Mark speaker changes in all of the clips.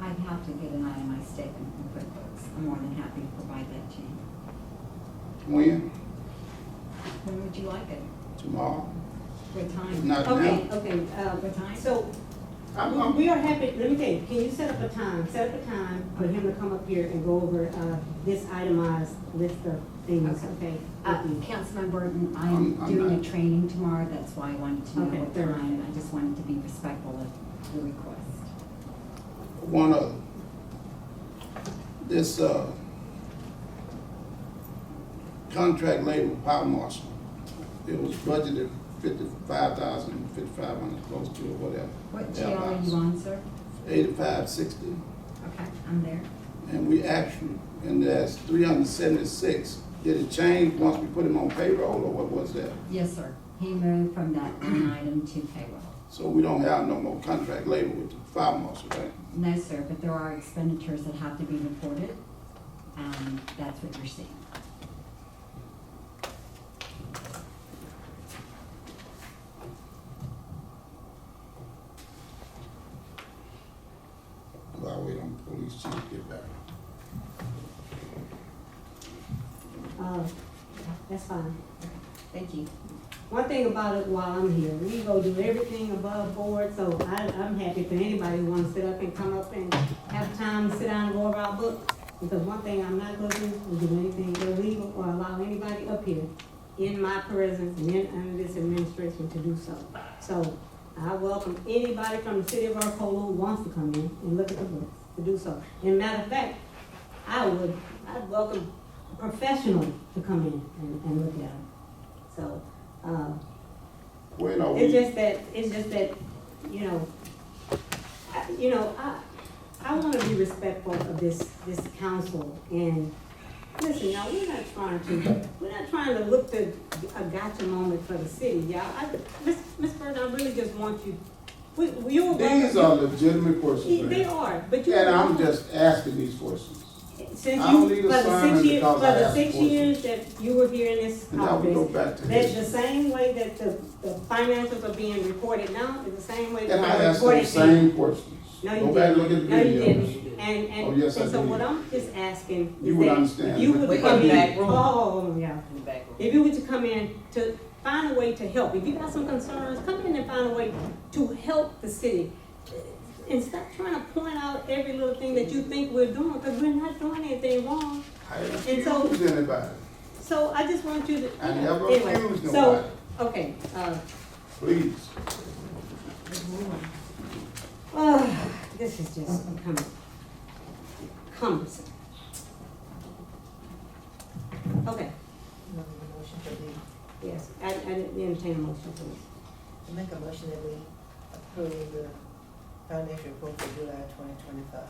Speaker 1: I'd have to get an itemized statement from QuickBooks. I'm more than happy to provide that to you.
Speaker 2: When?
Speaker 1: When would you like it?
Speaker 2: Tomorrow?
Speaker 1: What time?
Speaker 2: Not
Speaker 3: Okay,
Speaker 2: now.
Speaker 3: okay, uh,
Speaker 1: What time?
Speaker 3: so
Speaker 2: I'm, I'm,
Speaker 3: we are happy, let me tell you, can you set up a time, set up a time for him to come up here and go over, uh, this itemized list of things, okay?
Speaker 1: Uh,
Speaker 3: with you?
Speaker 1: Councilman Burton, I
Speaker 2: I'm-
Speaker 1: am
Speaker 2: I'm
Speaker 1: doing a
Speaker 2: not-
Speaker 1: training tomorrow, that's why I wanted to know
Speaker 3: Okay,
Speaker 1: what
Speaker 3: fair enough.
Speaker 1: time. I just wanted to be respectful of your request.
Speaker 2: one other. This, uh, contract labor power marshal, it was budgeted fifty-five thousand, fifty-five hundred, close to or whatever.
Speaker 1: What jail are you on, sir?
Speaker 2: Eighty-five, sixty,
Speaker 1: Okay, I'm there.
Speaker 2: and we actually, and that's three hundred seventy-six. Did it change once we put him on payroll, or what was that?
Speaker 1: Yes, sir. He moved from that line item to payroll.
Speaker 2: So we don't have no more contract labor with the fire marshal, right?
Speaker 1: No, sir, but there are expenditures that have to be reported. Um, that's what you're seeing.
Speaker 2: Well, I wait on the police chief to get back.
Speaker 3: Uh, that's fine.
Speaker 1: Thank you.
Speaker 3: One thing about it while I'm here, we go do everything above board, so I, I'm happy for anybody who wants to sit up and come up and have time to sit down and go over our books. Because one thing I'm not gonna do is do anything illegal or allow anybody up here in my presence and in, under this administration to do so. So I welcome anybody from the city of Arcola who wants to come in and look at the books to do so. And matter of fact, I would, I'd welcome a professional to come in and, and look at them. So, um,
Speaker 2: When are
Speaker 3: it's
Speaker 2: we,
Speaker 3: just that, it's just that, you know, I- you know, I, I wanna be respectful of this, this council and, listen, y'all, we're not trying to, we're not trying to look to a gotcha moment for the city, y'all. I, Ms. Ms. Burton, I really just want you, we, you're
Speaker 2: these
Speaker 3: welcome.
Speaker 2: are legitimate questions,
Speaker 3: They
Speaker 2: man.
Speaker 3: are, but you.
Speaker 2: And I'm just asking these questions.
Speaker 3: Since
Speaker 2: I don't
Speaker 3: you,
Speaker 2: need
Speaker 3: for
Speaker 2: a
Speaker 3: the
Speaker 2: sermon
Speaker 3: six years, for
Speaker 2: because I
Speaker 3: the
Speaker 2: asked
Speaker 3: six
Speaker 2: for it.
Speaker 3: years that you were here in this
Speaker 2: And I would go
Speaker 3: office,
Speaker 2: back to
Speaker 3: that the
Speaker 2: this.
Speaker 3: same way that the, the finances are being reported now is the same way that
Speaker 2: And I
Speaker 3: they're
Speaker 2: asked them
Speaker 3: reported
Speaker 2: the
Speaker 3: then.
Speaker 2: same questions.
Speaker 3: No, you
Speaker 2: Go back and look at
Speaker 3: didn't.
Speaker 2: the
Speaker 3: No, you
Speaker 2: videos.
Speaker 3: didn't. And,
Speaker 2: Oh,
Speaker 3: and, and
Speaker 2: yes, I
Speaker 3: so
Speaker 2: did.
Speaker 3: what I'm just asking
Speaker 2: You
Speaker 3: is
Speaker 2: would
Speaker 3: that
Speaker 2: understand.
Speaker 3: if you would
Speaker 4: Wait,
Speaker 3: come
Speaker 4: in the
Speaker 3: in,
Speaker 4: back room.
Speaker 3: oh, yeah.
Speaker 4: in the back room.
Speaker 3: If you were to come in to find a way to help, if you got some concerns, come in and find a way to help the city. And stop trying to point out every little thing that you think we're doing, because we're not doing anything wrong.
Speaker 2: I
Speaker 3: And so-
Speaker 2: didn't accuse anybody.
Speaker 3: So I just want you to.
Speaker 2: I never
Speaker 3: Anyway,
Speaker 2: accused
Speaker 3: So,
Speaker 2: nobody,
Speaker 3: okay, uh,
Speaker 2: please.
Speaker 3: oh, this is just becoming cumbersome. Okay,
Speaker 4: Make a motion that we,
Speaker 3: yes, I, I entertain a motion, please.
Speaker 4: to make a motion that we approve the financial report for July twenty twenty-five.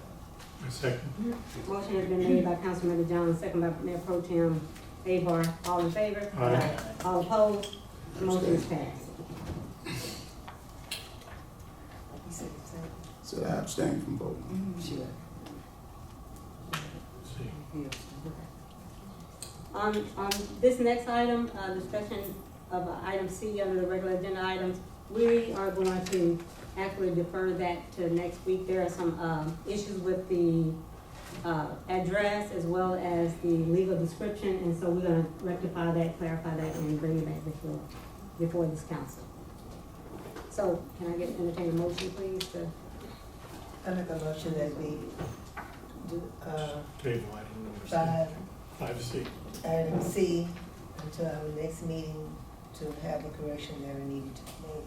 Speaker 5: A second.
Speaker 3: Motion has been made by Councilmember Jones, second by Mayor Pro Tem Abar, all in favor?
Speaker 5: Aye.
Speaker 3: All opposed? Motion is passed.
Speaker 4: You said the same.
Speaker 2: So I abstain from voting.
Speaker 4: Sure.
Speaker 5: See.
Speaker 3: On, on this next item, uh, discussion of uh, item C under the regular agenda items, we are going to actually defer that to next week. There are some, um, issues with the, uh, address as well as the legal description, and so we're gonna rectify that, clarify that, and bring it back before, before this council. So, can I get, entertain a motion, please, to,
Speaker 4: I make a motion that we do, uh,
Speaker 5: Table item number six.
Speaker 4: five,
Speaker 5: Five C.
Speaker 4: item C, until our next meeting to have the correction that are needed to be made.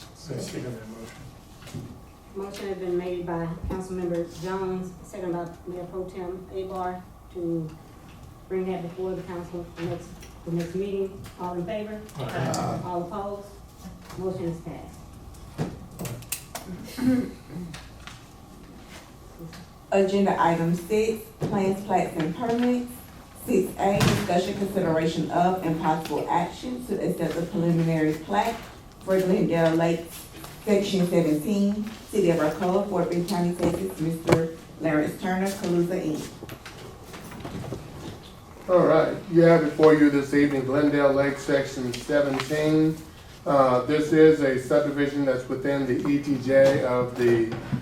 Speaker 5: I second that motion.
Speaker 3: motion has been made by Councilmember Jones, second by Mayor Pro Tem Abar, to bring that before the council for next, the next meeting. All in favor?
Speaker 5: Aye.
Speaker 2: Uh,
Speaker 3: All opposed? Motion is passed.
Speaker 6: Agenda item six, plans, plats, and permits. Six A, discussion consideration of and possible action to accept the preliminary plat for Glendale Lake, section seventeen, City of Arcola, Fort Bend County, Texas, Mr. Lawrence Turner, Calusa, Inc.
Speaker 7: All right, you have before you this evening Glendale Lake Section 17. Uh, This is a subdivision that's within the ETJ E of the